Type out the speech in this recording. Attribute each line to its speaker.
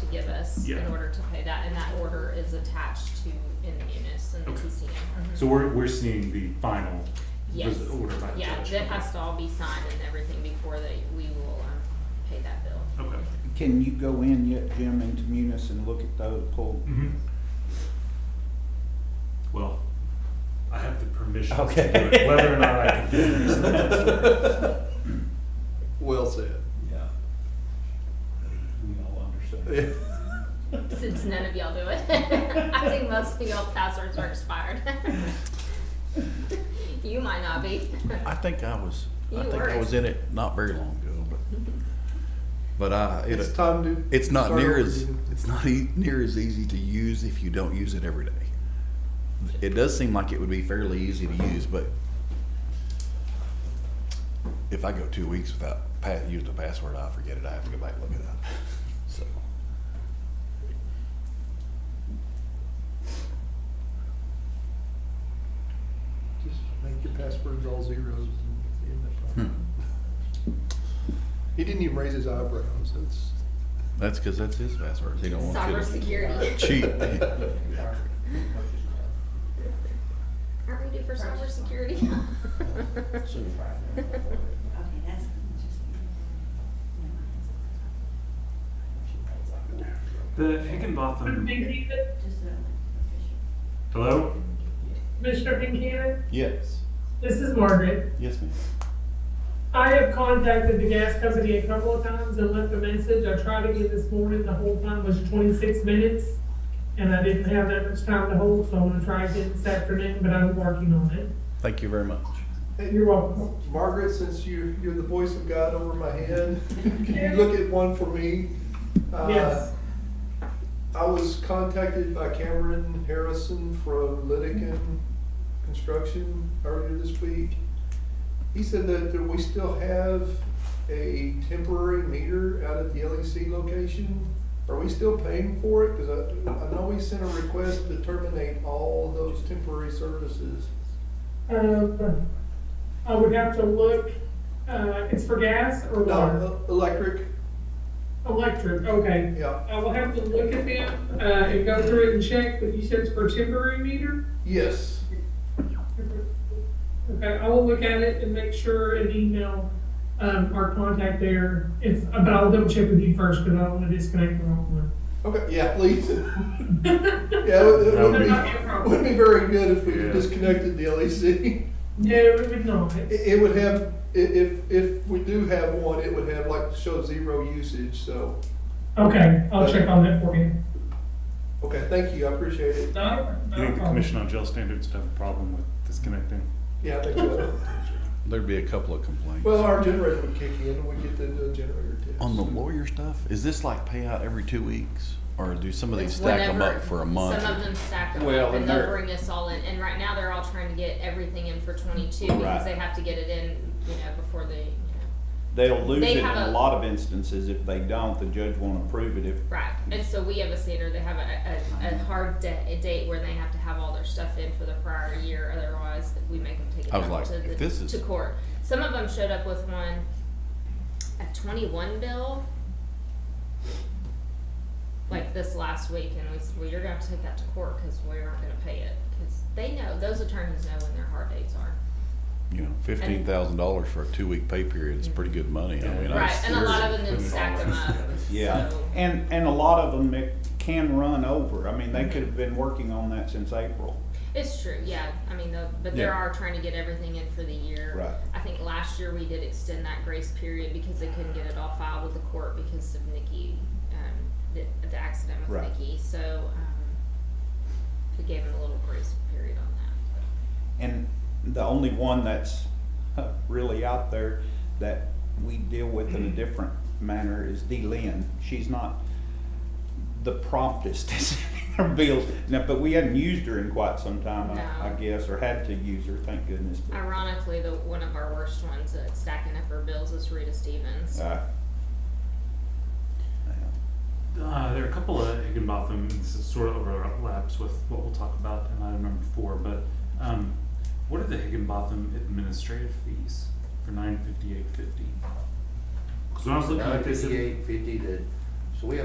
Speaker 1: funds in
Speaker 2: Yeah.
Speaker 1: order to pay that, and that order is attached to in the munis and the
Speaker 2: Okay.
Speaker 1: TCM. Mhm.
Speaker 2: So we're, we're seeing the final
Speaker 1: Yes.
Speaker 2: res- order by the judge.
Speaker 1: Yeah, that
Speaker 2: Okay.
Speaker 1: has to all be signed and everything before that we will, um, pay that bill.
Speaker 2: Okay.
Speaker 3: Can you go in yet, Jim, into Munis and look at the pool?
Speaker 2: Mhm. Well, I have the permission to do
Speaker 4: Okay.
Speaker 2: it, whether or not I can do it. is another story.
Speaker 5: Well said.
Speaker 4: Yeah. We all understand.
Speaker 5: Yeah.
Speaker 1: Since none of y'all do it. I think most of y'all passwords are expired. You might not be.
Speaker 6: I think I was,
Speaker 1: You
Speaker 6: I think
Speaker 1: were.
Speaker 6: I was in it not very long ago, but, but I,
Speaker 5: It's
Speaker 6: it,
Speaker 5: time to.
Speaker 6: it's not
Speaker 5: start
Speaker 6: near
Speaker 5: over
Speaker 6: as,
Speaker 5: again.
Speaker 6: it's not e- near as easy to use if you don't use it every day. It does seem like it would be fairly easy to use, but if I go two weeks without pa- using a password, I forget it. I have to go back and look it up, so.
Speaker 5: Just make your passwords all zeros and end the problem.
Speaker 6: Hmm.
Speaker 5: He didn't even raise his eyebrows, that's.
Speaker 6: That's because that's his password. He don't want you to
Speaker 1: Cybersecurity.
Speaker 6: cheat.
Speaker 1: Aren't we due for cybersecurity?
Speaker 7: Okay, that's just.
Speaker 2: The Higginbotham,
Speaker 8: Mr.
Speaker 7: Just a official.
Speaker 2: hello?
Speaker 8: Pinkhaven,
Speaker 6: Yes,
Speaker 8: this is Margaret.
Speaker 6: yes, ma'am.
Speaker 8: I have contacted the gas company a couple of times and left a message. I tried again this morning, the whole time was twenty-six minutes. And I didn't have that much time to hold, so I'm gonna try again this afternoon, but I'm working on it.
Speaker 6: Thank you very much.
Speaker 5: Hey,
Speaker 8: You're welcome.
Speaker 5: Margaret, since you, you're the voice of God over my head, can you look at one for me? Uh,
Speaker 8: Yes.
Speaker 5: I was contacted by Cameron Harrison from Litigan Construction earlier this week. He said that that we still have a temporary meter out at the LEC location. Are we still paying for it? Because I, I know we sent a request to terminate all those temporary services.
Speaker 8: Um, I would have to look, uh, it's for gas or water?
Speaker 5: No, e- electric,
Speaker 8: Electric, okay.
Speaker 5: yeah.
Speaker 8: I will have to look at them, uh, and go through it and check, but you said it's for temporary meter?
Speaker 5: Yes,
Speaker 8: Okay, I will look at it and make sure and email, um, our contact there, if, but I'll double check with you first, because I don't wanna disconnect the wrong
Speaker 5: okay, yeah, please.
Speaker 8: one.
Speaker 5: Yeah, it would- it
Speaker 2: That
Speaker 5: would
Speaker 2: would
Speaker 5: be,
Speaker 2: be-
Speaker 8: Not your problem.
Speaker 5: would be very good if we
Speaker 2: Yeah.
Speaker 5: disconnected the E LEC.
Speaker 8: No, it would not,
Speaker 5: It, it would have, i- if, if we do have one, it would have like, show zero usage, so,
Speaker 8: okay, I'll check on that for you.
Speaker 5: okay, thank you, I appreciate it.
Speaker 8: No,
Speaker 2: You think the Commission on Jail Standards would have a problem with disconnecting?
Speaker 5: Yeah, thank you.
Speaker 6: There'd be a couple of complaints.
Speaker 5: Well, our generator would kick in, we get the the generator test.
Speaker 6: On the lawyer stuff, is this like payout every two weeks, or do some of these
Speaker 1: It's
Speaker 6: stack them
Speaker 1: whenever-
Speaker 6: up for a month?
Speaker 1: Some of them stack them
Speaker 4: Well,
Speaker 1: up and
Speaker 4: and
Speaker 1: they'll
Speaker 4: they're-
Speaker 1: bring us all in, and right now they're all trying to get everything in for twenty-two because
Speaker 4: Right.
Speaker 1: they have to get it in, you know, before they, you know,
Speaker 3: They'll lose
Speaker 1: They
Speaker 3: it in
Speaker 1: have a-
Speaker 3: a lot of instances. If they don't, the judge won't approve it if
Speaker 1: right. And so we have a standard, they have a, a, a hard da- a date where they have to have all their stuff in for the prior year, otherwise we make them take it
Speaker 6: I was
Speaker 1: back
Speaker 6: like,
Speaker 1: to
Speaker 6: if
Speaker 1: the,
Speaker 6: this is-
Speaker 1: to court. Some of them showed up with one, a twenty-one bill. Like this last week and we said, well, you're gonna have to take that to court, cause we aren't gonna pay it, cause they know, those attorneys know when their hard dates are.
Speaker 6: You know, fifteen thousand dollars for a two-week pay period is pretty good money. I mean, I
Speaker 1: Right,
Speaker 6: was-
Speaker 1: and a lot of them
Speaker 2: Putting
Speaker 1: then
Speaker 2: it all
Speaker 1: stack them up.
Speaker 2: together.
Speaker 3: Yeah,
Speaker 1: so-
Speaker 3: and, and a lot of them it can run over. I mean, they could have been working on that since April.
Speaker 1: It's true, yeah, I mean, the- but there
Speaker 6: Yeah.
Speaker 1: are trying to get everything in for the year.
Speaker 3: Right.
Speaker 1: I think last year we did extend that grace period because they couldn't get it all filed with the court because of Nikki, um, the, the accident with
Speaker 3: Right.
Speaker 1: Nikki, so, um, we gave them a little grace period on that.
Speaker 3: And the only one that's really out there that we deal with in a different manner is Dee Lynn. She's not the promptest to send her bills. Now, but we hadn't used her in quite some time, I, I
Speaker 1: No.
Speaker 3: guess, or had to use her, thank goodness. but,
Speaker 1: Ironically, the, one of our worst ones at stacking up her bills is Rita Stevens.
Speaker 3: uh, yeah.
Speaker 2: Uh, there are a couple of Higginbotham, this is sort of overlaps with what we'll talk about in item number four, but, um, what are the Higginbotham administrative fees for nine fifty-eight fifty? Cause when I was looking at this. it-
Speaker 9: Ninety-eight fifty to, so we have